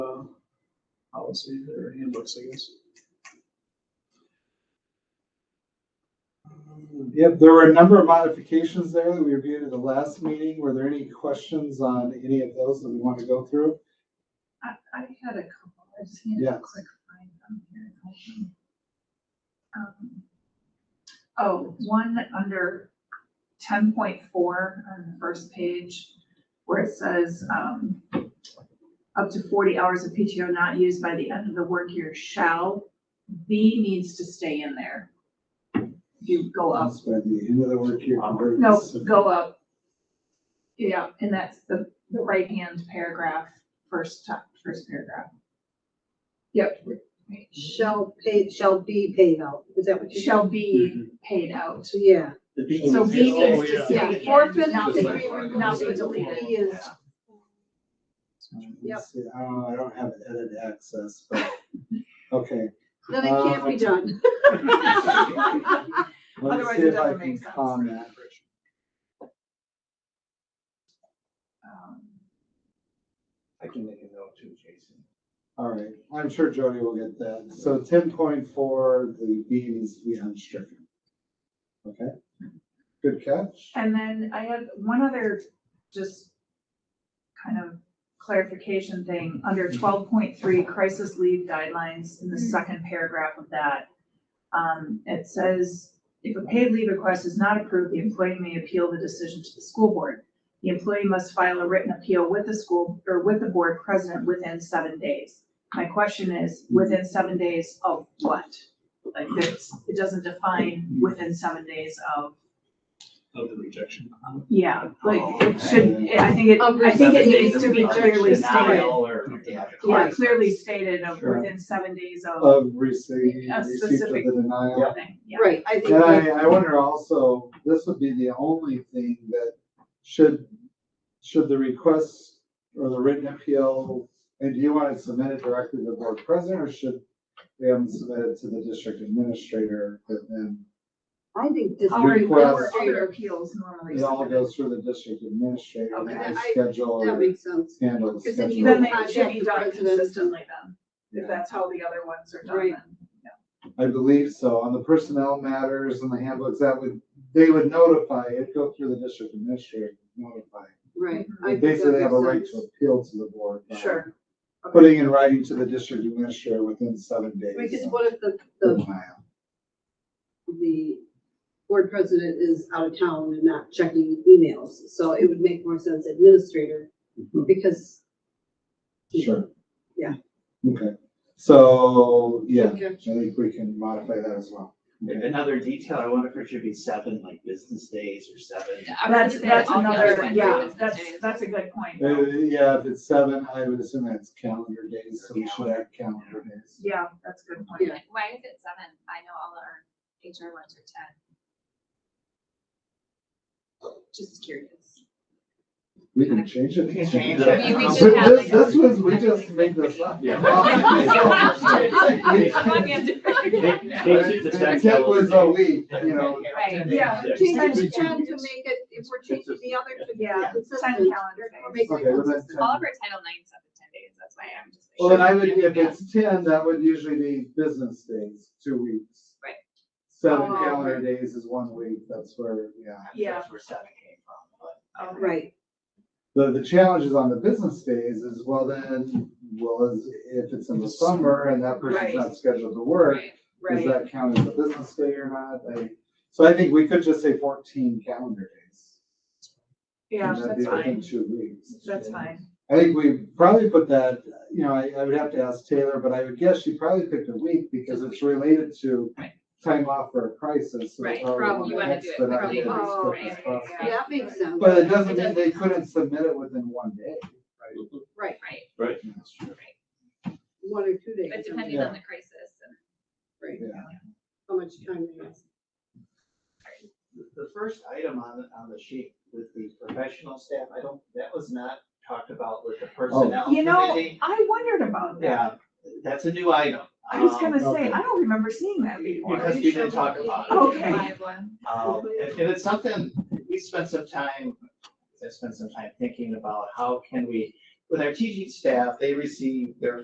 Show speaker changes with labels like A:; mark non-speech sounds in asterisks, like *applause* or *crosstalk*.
A: uh,
B: policies or handbooks, I guess.
C: Um, Yep, there were a number of modifications there that we reviewed at the last meeting. Were there any questions on any of those that we want to go through?
D: I, I had a couple, I just need a
C: Yes.
D: quick find them here. Um, Oh, one under ten point four on the first page, where it says, um, up to forty hours of PTO not used by the end of the work year shall, B needs to stay in there. If you go up,
C: That's by the end of the work year. convert
D: um, no,
C: this to-
D: go up. Yeah, and that's the, the right-hand paragraph, first, top- first paragraph. Yep,
E: Shall paid, shall be paid out, is that what you?
D: shall
B: Mm-hmm.
D: be paid out.
E: So, yeah.
B: The
D: So B
B: Oh,
D: needs to,
B: yeah.
D: yeah, forfeit, not be, not be deleted.
E: He is, Yep.
C: Let's see, I don't know, I don't have edit access, but, okay.
E: then it can't be done.
C: Let me
D: Otherwise
C: see
D: it
C: if I
D: doesn't
C: can
D: make sense.
C: comment.
D: *laughs* Um,
B: I can make a note too, Jason.
C: All right, I'm sure Jody will get that. So ten point four, the B needs to be unstricken. Okay, good catch.
D: And then I had one other just kind of clarification thing, under twelve point three crisis leave guidelines, in the second paragraph of that. Um, it says, if a paid leave request is not approved, the employee may appeal the decision to the school board. The employee must file a written appeal with the school, or with the board president within seven days. My question is, within seven days of what? Like, it's, it doesn't define within seven days of.
B: Of the rejection.
D: Yeah, like it should, I think it, I think it needs to be clearly stated. Yeah,
E: Right.
D: clearly stated of
C: Sure.
D: within seven days of
C: Of receipt,
D: Um,
C: receipt
D: A
C: of the
D: specific-
C: denial.
D: something, yeah.
E: Right, I think
C: And
E: that,
C: I, I wonder also, this would be the only thing that should, should the request or the written appeal, and do you want it submitted directly to the board president or should we have them submitted to the district administrator that then
E: I think this.
D: Our,
C: Request.
D: our other appeals normally.
C: It all
D: submit.
C: goes through the district administrator, and
E: Okay,
C: they
E: I-
C: schedule,
E: That makes sense.
C: handle the
E: Because then you
D: Then
C: schedule.
D: they should be done
E: Contact the president.
D: consistently then,
C: Yeah.
D: if that's how the other ones are done
E: Right.
D: then.
C: I believe so, on the personnel matters and the handbooks, that would, they would notify, it'd go through the district administrator, notify.
E: Right. I
C: They
E: think that
C: basically have a
E: makes
C: right
E: sense.
C: to appeal to the board. by
D: Sure. Okay.
C: Putting in writing to the district administrator within seven days.
E: Because
C: of
E: what if the, the,
C: denial.
E: the board president is out of town and not checking emails? So it would make more sense administrator, because.
C: Mm-hmm. Sure.
E: Yeah.
C: Okay, so, yeah,
E: Okay.
C: I think we can modify that as well. Okay.
A: Another detail, I wonder if it should be seven, like business days or seven.
D: That's, that's another,
A: Wednesday.
D: yeah, that's, that's a good point.
C: Uh,
D: though.
C: yeah, if it's seven, I would assume that's calendar days, so we should add calendar days.
D: Yeah, that's a good point.
E: Yeah.
F: Why is it seven? I know all our HR ones are ten. Just curious.
C: We can change it. We
A: change
F: it. I mean, we should have,
C: This,
F: like,
C: this was, we just made this up.
A: They keep the
C: And
A: tax
C: It was a
A: elevated.
C: week, you know,
F: Right.
D: Yeah,
E: Change
C: Change
E: it
C: it
E: to ten to make it, if we're changing the other to be
D: Yeah, ten
E: consistent.
D: calendar
E: We're
D: days.
E: making it
C: Okay, well, that's
E: consistent.
F: All of our Title IX stuff is ten days, that's why I'm just.
C: well, then I would, if it's ten, that would usually be business days, two weeks.
F: Right.
C: Seven
D: Oh,
C: calendar days is one week, that's where, yeah.
D: Yeah.
A: That's where seven came from,
D: Oh,
A: but.
E: Right,
C: The, the challenge is on the business days is, well, then, well, is- if it's in the summer and that person's
D: Right.
C: not scheduled to work, Does
D: Right,
C: that count as a business day or not? Like, so I think we could just say fourteen calendar days.
D: yeah,
C: And that'd
D: that's
C: be within
D: fine,
C: Two weeks.
D: that's fine.
C: I think we probably put that, you know, I, I would have to ask Taylor, but I would guess she probably picked a week because it's related to
F: Right.
C: time off for a crisis. so
F: Right,
C: probably
F: you wanna do it
C: expedite
F: probably
C: it as
E: early,
C: quick as
F: right,
C: possible.
E: yeah, that makes sense.
C: But it doesn't mean they couldn't submit it within one day.
E: Right,
F: Right,
A: Right.
E: one or two days.
F: but
E: I mean,
F: depending on the crisis and.
E: Right,
C: Yeah.
E: how much time it is.
A: The- The first item on, the on the sheet with the professional staff, I don't, that was not talked about with the personnel
D: You know,
A: committee.
D: I wondered about that.
A: Yeah, that's a new item.
D: I was
A: Um,
D: gonna say,
C: okay.
D: I don't remember seeing that before.
A: Because we didn't talk about it.
D: Okay.
F: Live one.
A: Um, and, and it's something, we spent some time, I spent some time thinking about how can we, with our teaching staff, they receive their